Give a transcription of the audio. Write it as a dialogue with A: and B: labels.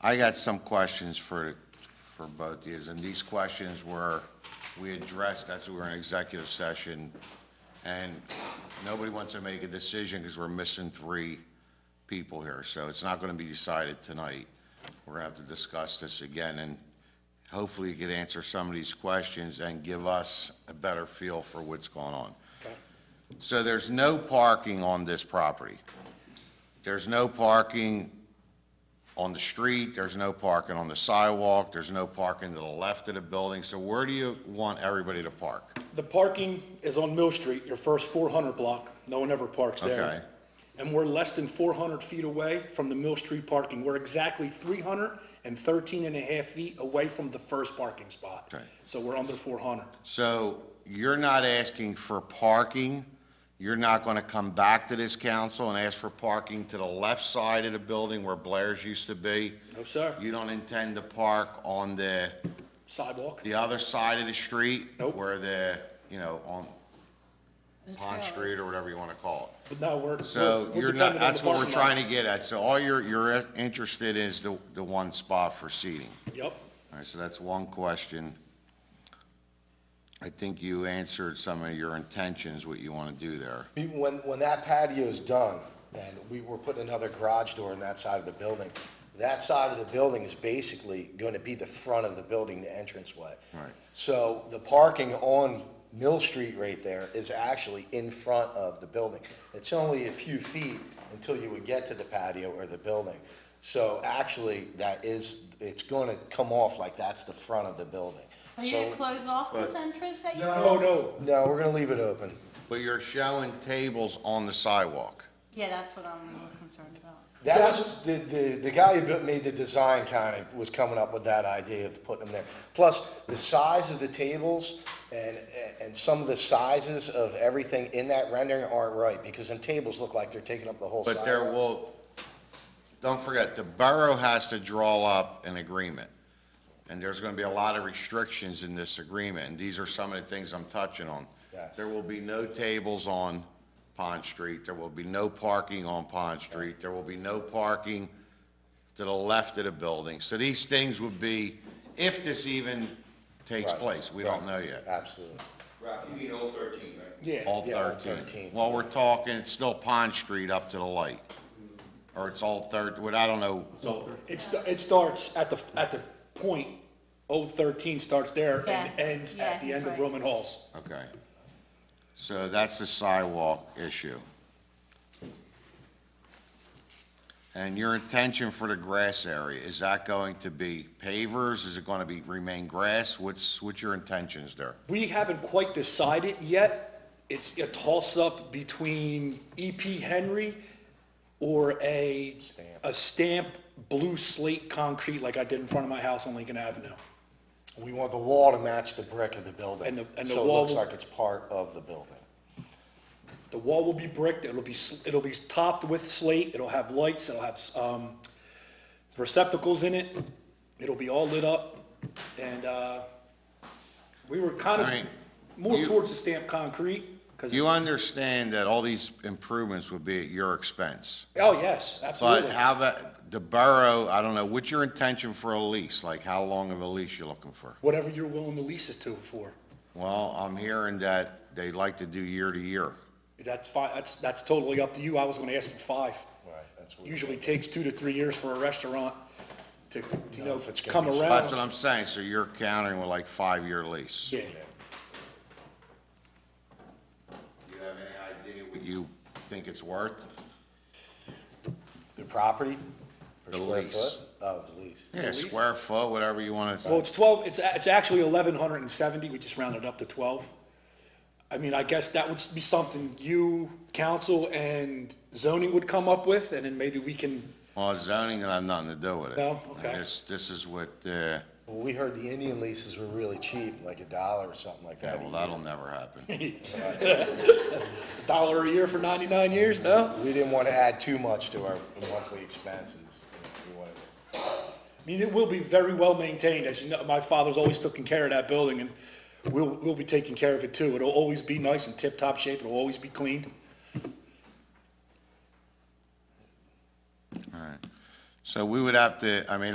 A: I got some questions for, for both of yous, and these questions were, we addressed, that's what we were in executive session, and nobody wants to make a decision because we're missing three people here, so it's not going to be decided tonight. We're going to have to discuss this again, and hopefully you could answer some of these questions and give us a better feel for what's going on. So there's no parking on this property. There's no parking on the street, there's no parking on the sidewalk, there's no parking to the left of the building, so where do you want everybody to park?
B: The parking is on Mill Street, your first 400 block. No one ever parks there.
A: Okay.
B: And we're less than 400 feet away from the Mill Street parking. We're exactly 313 and a half feet away from the first parking spot.
A: Okay.
B: So we're under 400.
A: So you're not asking for parking, you're not going to come back to this council and ask for parking to the left side of the building where Blair's used to be?
B: No, sir.
A: You don't intend to park on the,
B: Sidewalk?
A: the other side of the street?
B: Nope.
A: Where the, you know, on Pond Street or whatever you want to call it?
B: But no, we're.
A: So
B: we're- we're
A: you're not,
B: dependent on
A: that's
B: the
A: what we're
B: parking lot.
A: trying to get at. So all you're, you're interested is the, the one spot for seating.
B: Yep.
A: All right, so that's one question. I think you answered some of your intentions, what you want to do there.
C: We- When, when that patio is done, and we were putting another garage door in that side of the building, that side of the building is basically going to be the front of the building, the entranceway.
A: Right.
C: So the parking on Mill Street right there is actually in front of the building. It's only a few feet until you would get to the patio or the building. So actually, that is, it's going to come off like that's the front of the building.
D: Are you gonna
C: So-
D: close off this
A: But-
D: entrance that you?
B: No, no.
C: No, we're going to leave it open.
A: But you're showing tables on the sidewalk.
D: Yeah, that's what I'm really concerned about.
C: That was, the, the, the guy who built- made the design kind of was coming up with that idea of putting them there. Plus, the size of the tables and, and some of the sizes of everything in that rendering aren't right, because them tables look like they're taking up the whole
A: But there
C: sidewalk.
A: will, don't forget, the borough has to draw up an agreement. And there's going to be a lot of restrictions in this agreement, and these are some of the things I'm touching on.
C: Yes.
A: There will be no tables on Pond Street, there will be no parking on Pond Street, there will be no parking to the left of the building. So these things would be, if this even takes
C: Right,
A: place, we
C: right.
A: don't know yet.
C: Absolutely.
E: Rob, you mean all thirteen, right?
B: Yeah.
A: All
C: Yeah, all
A: 13.
C: 13.
A: Well, we're talking, it's still Pond Street up to the light, or it's all 13, what, I don't know.
B: It's, it starts at the, at the point, Old 13 starts there
D: Yeah.
B: and ends
D: Yeah,
B: at the end of
D: right.
B: Roman Halls.
A: Okay. So that's the sidewalk issue. And your intention for the grass area, is that going to be pavers? Is it going to be, remain grass? What's, what's your intentions there?
B: We haven't quite decided yet. It's a toss-up between E.P. Henry or a,
C: Stamp.
B: a stamped blue slate concrete like I did in front of my house on Lincoln Avenue.
C: We want the wall to match the brick of the building.
B: And the- and the
C: So it
B: wall
C: looks
B: will-
C: like it's part of the building.
B: The wall will be bricked, it'll be, s- it'll be topped with slate, it'll have lights, it'll have, um, receptacles in it. It'll be all lit up and, uh, we were kind
A: All right.
B: of more
A: You-
B: towards the stamped concrete. 'cause-
A: You understand that all these improvements would be at your expense?
B: Oh, yes, absolutely.
A: But how that, the borough, I don't know, what's your intention for a lease? Like, how long of a lease you looking for?
B: Whatever you're willing to lease it to for.
A: Well, I'm hearing that they like to do year to year.
B: That's fine, that's, that's totally up to you, I was gonna ask for five.
C: Right, that's what.
B: Usually takes two to three years for a restaurant to, to, you
C: No,
B: know,
C: if it's gonna
B: come
C: be-
A: That's what
B: around.
A: I'm saying, so you're countering with like five-year lease.
B: Yeah,
A: Do you have any idea what you think it's worth?
C: The property? per
A: The
C: square
A: lease.
C: foot? Oh, the lease.
A: Yeah, Oh.
B: lease?
A: square foot, whatever you want
B: well,
A: to,
B: it's twelve, it's, a- it's actually eleven hundred and seventy, we just rounded up to twelve. I mean, I guess that would be something you, council, and zoning would come up with, and then maybe we can,
A: well, zoning, I have nothing to do with it.
B: No?
A: And
B: Okay.
A: This, this is what, uh,
C: Well, we heard the Indian leases were really cheap, like a dollar or something like that.
A: yeah,
C: a
A: well,
C: year.
A: that'll never happen.
B: dollar a year for ninety-nine years, no?
C: We didn't want to add too much to our monthly expenses. We wanted to-
B: I mean, it will be very well maintained, as you know, my father's always taken care of that building, and we'll, we'll be taking care of it too. It'll always be nice and tip-top shape, it'll always be cleaned.
A: All right. So we would have to, I mean,